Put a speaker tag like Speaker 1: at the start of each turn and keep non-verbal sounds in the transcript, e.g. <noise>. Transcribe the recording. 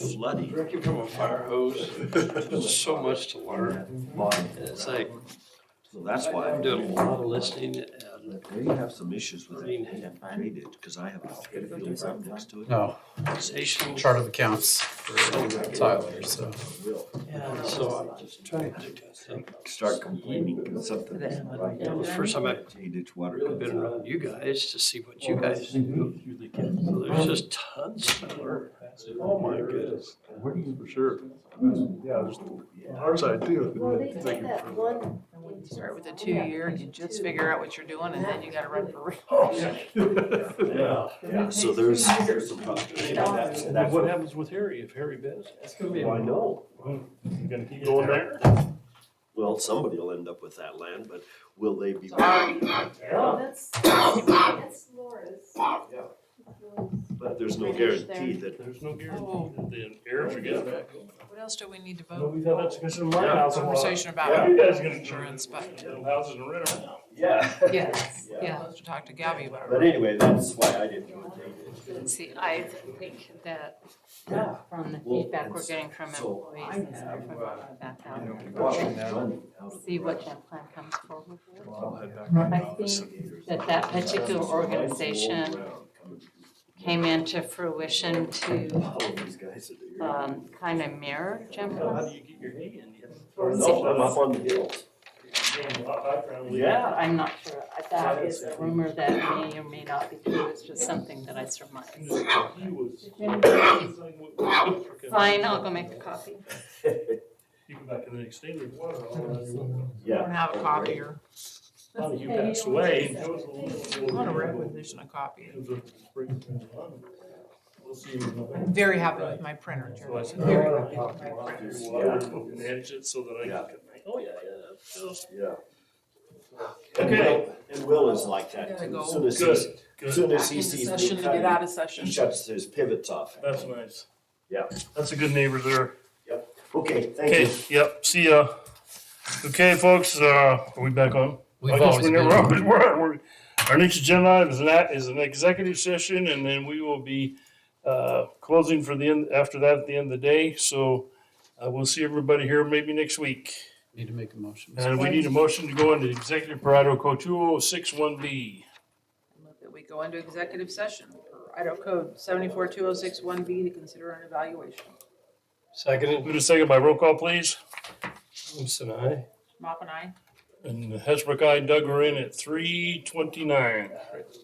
Speaker 1: flooding.
Speaker 2: Drinking from a fire hose, there's so much to learn. And it's like,
Speaker 1: So that's why
Speaker 2: I'm
Speaker 1: I'm
Speaker 2: doing a
Speaker 1: doing,
Speaker 2: lot of listening and
Speaker 1: they have some issues with it, they have graded, because I have a field right next to it.
Speaker 3: No,
Speaker 2: conversation.
Speaker 3: chart of accounts for Tyler, so.
Speaker 4: uh,
Speaker 2: And so I'm just trying to,
Speaker 1: Start complaining because something.
Speaker 2: That was the first time I-
Speaker 1: It's water.
Speaker 2: I've
Speaker 1: comes
Speaker 2: been
Speaker 1: out.
Speaker 2: around you guys to see what you guys do. So There's just tons to learn. Oh my goodness.
Speaker 5: For sure. Yeah, there's our side
Speaker 6: Well,
Speaker 5: too.
Speaker 6: they did that one.
Speaker 7: Start with a two-year, and you just figure out what you're doing, and then you gotta run for
Speaker 5: Yeah.
Speaker 1: Yeah, so there's, there's some problems. That's- that's
Speaker 2: What happens with Harry if Harry bids? That's gonna be.
Speaker 5: Well, I know. You gonna keep going there?
Speaker 1: Well, somebody will end up with that land, but will they be?
Speaker 7: real.
Speaker 6: No, That's, <coughs> that's Laura's.
Speaker 1: But there's no
Speaker 6: British there.
Speaker 1: guarantee that
Speaker 5: There's no guarantee that the heirs are gonna. back.
Speaker 7: What else do we need to
Speaker 5: No,
Speaker 7: vote?
Speaker 5: Oh. we've had that discussion in my house a lot.
Speaker 7: Conversation
Speaker 5: Yeah,
Speaker 7: about
Speaker 5: you guys gonna.
Speaker 7: insurance, but,
Speaker 5: Houses and rent 'em.
Speaker 1: <laughs> Yeah.
Speaker 7: yes,
Speaker 1: Yeah.
Speaker 7: yeah, to talk to Gabby about
Speaker 1: But anyway, that's why I didn't go and take it.
Speaker 4: See, I think that
Speaker 1: Yeah.
Speaker 4: from the
Speaker 1: Well,
Speaker 4: feedback we're
Speaker 1: it's-
Speaker 4: getting from
Speaker 1: so
Speaker 4: employees
Speaker 1: I
Speaker 4: and stuff
Speaker 1: have,
Speaker 4: about that,
Speaker 1: I
Speaker 4: how-
Speaker 1: don't know, watching that running out of the
Speaker 4: see what
Speaker 1: brush.
Speaker 4: that plan comes forward with.
Speaker 1: I'll head back.
Speaker 4: I think that that particular organization came into fruition to,
Speaker 1: All of these guys that are here.
Speaker 4: um, kind of mirror Jim
Speaker 2: How
Speaker 4: Crow.
Speaker 2: do you get your hay in?
Speaker 1: No, I'm up on the hills. Yeah.
Speaker 4: I'm not sure, I- that is a rumor that may or may not be true, it's just something that I surmise.
Speaker 5: He was.
Speaker 4: Fine, I'll go make a copy.
Speaker 5: You go back in the next day, there's water all around your window.
Speaker 7: I
Speaker 1: Yeah.
Speaker 7: don't have a copy or,
Speaker 5: Oh, you passed away.
Speaker 7: I want a requisition a copy.
Speaker 5: It was a spring. We'll see you in November.
Speaker 7: Very happy with my printer,
Speaker 5: So I
Speaker 7: Jeremy.
Speaker 5: said,
Speaker 7: Very
Speaker 5: "Oh,
Speaker 7: happy
Speaker 5: I'll
Speaker 7: with my
Speaker 5: do
Speaker 7: printer.
Speaker 5: this water and Manage it so that I
Speaker 1: Yeah.
Speaker 5: can. Oh, yeah, yeah, that's just-
Speaker 1: Yeah. And
Speaker 5: Okay.
Speaker 1: Will- And Will is like that
Speaker 7: Gotta
Speaker 1: too.
Speaker 7: go.
Speaker 1: As soon as he,
Speaker 5: Good,
Speaker 1: as
Speaker 5: good.
Speaker 1: soon as
Speaker 7: Back
Speaker 1: he
Speaker 7: into
Speaker 1: sees
Speaker 7: session
Speaker 1: me
Speaker 7: to get out
Speaker 1: coming,
Speaker 7: of
Speaker 1: he
Speaker 7: session.
Speaker 1: shuts his pivots off.
Speaker 5: That's nice.
Speaker 1: Yeah.
Speaker 5: That's a good neighbor there.
Speaker 1: Okay, thank
Speaker 5: Okay,
Speaker 1: you.
Speaker 5: yep, see ya. Okay, folks, uh, are we back on?
Speaker 3: We've
Speaker 5: I guess
Speaker 3: always
Speaker 5: we never
Speaker 3: been-
Speaker 5: are. <laughs> We're- we're- Our next agenda item is an, act- is an executive session, and then we will be uh, closing for the end, after that, at the end of the day. So uh, we'll see everybody here maybe next week.
Speaker 3: Need to make a motion.
Speaker 5: And we need a motion to go into executive parado code two oh six one B.
Speaker 7: Move That we go into executive session for Idaho Code seventy-four two oh six one B to consider an evaluation.
Speaker 5: Second. Move to second by roll call, please.
Speaker 2: Simpson, I.
Speaker 7: Mop and I.
Speaker 5: And Hesbrook, I, Doug, we're in at three twenty-nine.